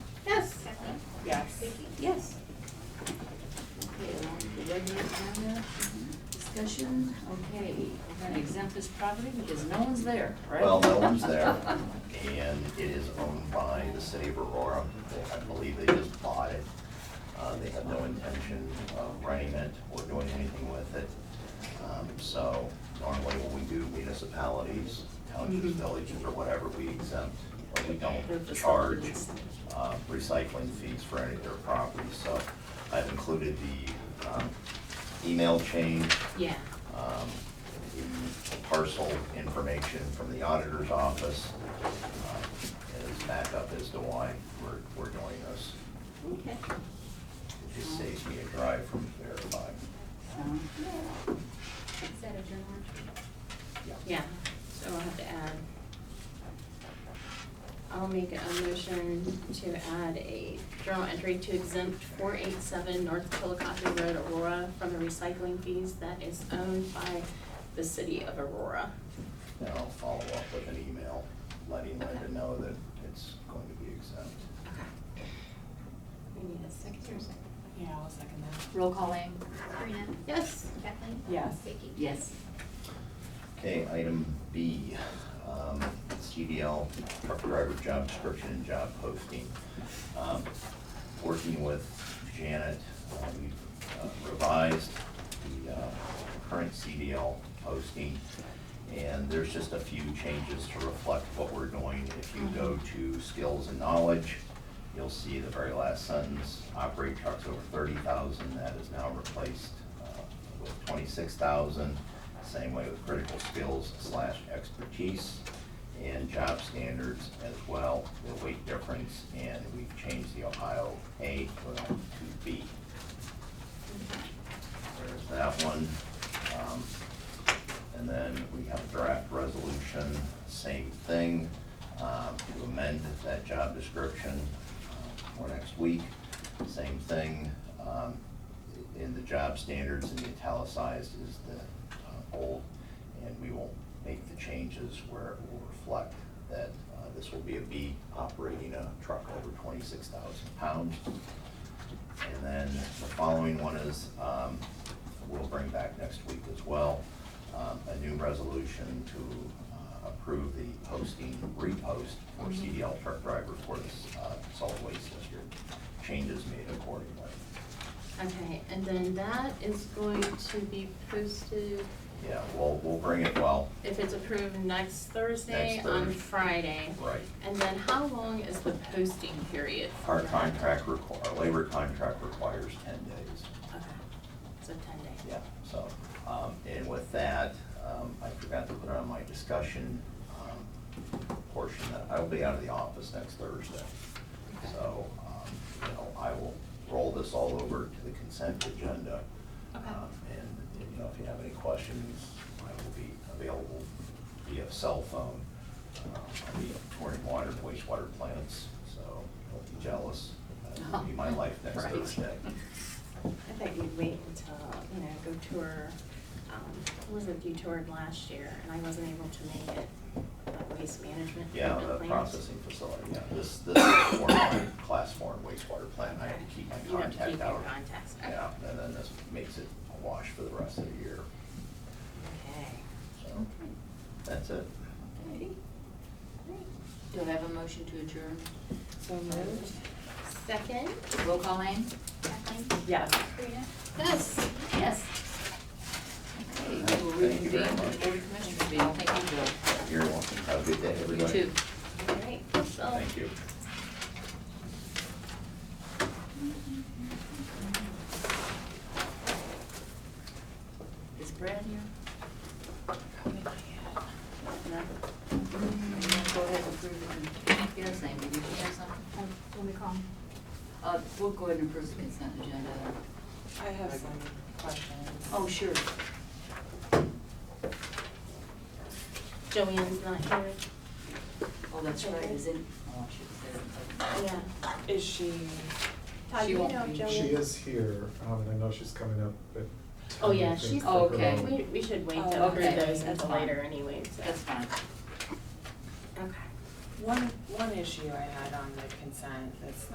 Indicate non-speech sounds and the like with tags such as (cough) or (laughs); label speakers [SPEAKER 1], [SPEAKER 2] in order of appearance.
[SPEAKER 1] agenda. Discussion, okay, we're gonna exempt this property because no one's there, right?
[SPEAKER 2] Well,
[SPEAKER 3] (laughs)
[SPEAKER 2] no one's there, and it is owned by the city of Aurora. They- I believe they just bought it. Uh, They have no intention of running it or doing anything with it. Um, So normally when we do municipalities, townships, villages, or whatever, we exempt, or we don't charge uh, recycling fees for any of their properties. So I've included the um, email change
[SPEAKER 1] (laughs) Yeah,
[SPEAKER 2] um, the parcel information from the auditor's office uh, as backup as to why we're, we're doing this.
[SPEAKER 1] okay.
[SPEAKER 2] It just saves me a drive from verifying.
[SPEAKER 1] So,
[SPEAKER 3] Is that a journal entry?
[SPEAKER 1] Yeah, so I'll have to add,
[SPEAKER 3] I'll make a motion to add a journal entry to exempt four eight seven North Chillicothe Road, Aurora, from the recycling fees that is owned by the city of Aurora.
[SPEAKER 2] And I'll follow up with an email letting Linda know that it's going to be exempt.
[SPEAKER 3] Okay. We need a second or second?
[SPEAKER 4] Yeah, I'll second that. Roll call aim.
[SPEAKER 3] Sabrina? Yes. Kathleen?
[SPEAKER 4] Yes.
[SPEAKER 3] Vicky?
[SPEAKER 1] yes,
[SPEAKER 2] Okay, item B, um, CDL truck driver job description and job posting. Um, Working with Janet, uh, we uh, revised the uh, current CDL posting. And there's just a few changes to reflect what we're doing. If you go to skills and knowledge, you'll see the very last sentence, operate trucks over thirty thousand, that is now replaced uh, with twenty-six thousand. Same way with critical skills slash expertise and job standards as well, the weight difference, and we've changed the Ohio A to B. There's that one. Um, And then we have a draft resolution, same thing, um, to amend that job description uh, for next week. Same thing, um, in the job standards, in the italicized is the uh, old, and we will make the changes where it will reflect that uh, this will be a B operating a truck over twenty-six thousand pounds. And then the following one is, um, we'll bring back next week as well, um, a new resolution to uh, approve the posting, repost for CDL truck driver for this, uh, solid waste district. Changes made accordingly.
[SPEAKER 3] Okay, and then that is going to be posted,
[SPEAKER 2] Yeah, we'll, we'll bring it, well,
[SPEAKER 3] if it's approved, next Thursday
[SPEAKER 2] Next
[SPEAKER 3] on
[SPEAKER 2] Thursday.
[SPEAKER 3] Friday.
[SPEAKER 2] right.
[SPEAKER 3] And then how long is the posting period? for
[SPEAKER 2] Our
[SPEAKER 3] that?
[SPEAKER 2] contract requ- our labor contract requires ten days.
[SPEAKER 3] Okay, so ten days.
[SPEAKER 2] Yeah, so, um, and with that, um, I forgot to put on my discussion, um, portion that I will be out of the office next Thursday. So, um, you know, I will roll this all over to the consent agenda.
[SPEAKER 3] Okay.
[SPEAKER 2] Um, And, you know, if you have any questions, I will be available via cell phone. Um, I'll be touring water, and wastewater plants, so don't be jealous. That will be my life next
[SPEAKER 3] (laughs) Right.
[SPEAKER 2] Thursday.
[SPEAKER 3] I bet you'd wait until, you know, go tour, um, Elizabeth, you toured last year, and I wasn't able to make it, the waste management.
[SPEAKER 2] Yeah,
[SPEAKER 3] treatment
[SPEAKER 2] the
[SPEAKER 3] plant.
[SPEAKER 2] processing facility, yeah, this, this is more my class four and wastewater plant, I have to keep my
[SPEAKER 3] You have to keep
[SPEAKER 2] contact
[SPEAKER 3] your
[SPEAKER 2] out.
[SPEAKER 3] contacts out.
[SPEAKER 2] Yeah, and then this makes it a wash for the rest of the year,
[SPEAKER 3] Okay.
[SPEAKER 2] so, that's it.
[SPEAKER 1] alrighty. Do I have a motion to adjourn?
[SPEAKER 4] So moved.
[SPEAKER 3] Second?
[SPEAKER 1] Roll call aim?
[SPEAKER 3] Kathleen?
[SPEAKER 4] Yes.
[SPEAKER 3] Sabrina?
[SPEAKER 1] Yes. Yes. Okay, we will
[SPEAKER 2] Thank you very
[SPEAKER 1] reconvene the
[SPEAKER 2] much.
[SPEAKER 1] Board of Commissioners meeting. Thank you, Bill.
[SPEAKER 2] You're welcome, have a good day,
[SPEAKER 1] You
[SPEAKER 2] everybody.
[SPEAKER 1] too.
[SPEAKER 3] All right, so.
[SPEAKER 2] Thank you.
[SPEAKER 1] Is Brad here? No? Go ahead and approve the, he has something, did you have something?
[SPEAKER 5] When we call.
[SPEAKER 1] Uh, we'll go ahead and approve the consent agenda.
[SPEAKER 4] I have some questions.
[SPEAKER 1] Oh, sure.
[SPEAKER 3] Joanne's not here.
[SPEAKER 1] Oh, that's right, is it? Oh, I should have said it.
[SPEAKER 3] Yeah.
[SPEAKER 4] Is she,
[SPEAKER 3] Todd,
[SPEAKER 1] She
[SPEAKER 3] do you
[SPEAKER 1] won't
[SPEAKER 3] know
[SPEAKER 1] be.
[SPEAKER 3] if Joanne?
[SPEAKER 6] She is here, um, and I know she's coming up, but.
[SPEAKER 3] Oh, yeah, she's.
[SPEAKER 1] Oh, okay.
[SPEAKER 3] We, we should wait to
[SPEAKER 4] Oh,
[SPEAKER 3] approve
[SPEAKER 1] okay.
[SPEAKER 3] those
[SPEAKER 1] That's
[SPEAKER 3] until
[SPEAKER 1] fine.
[SPEAKER 3] later anyway, so.
[SPEAKER 1] That's fine.
[SPEAKER 3] Okay.
[SPEAKER 4] one, one issue I had on the consent that's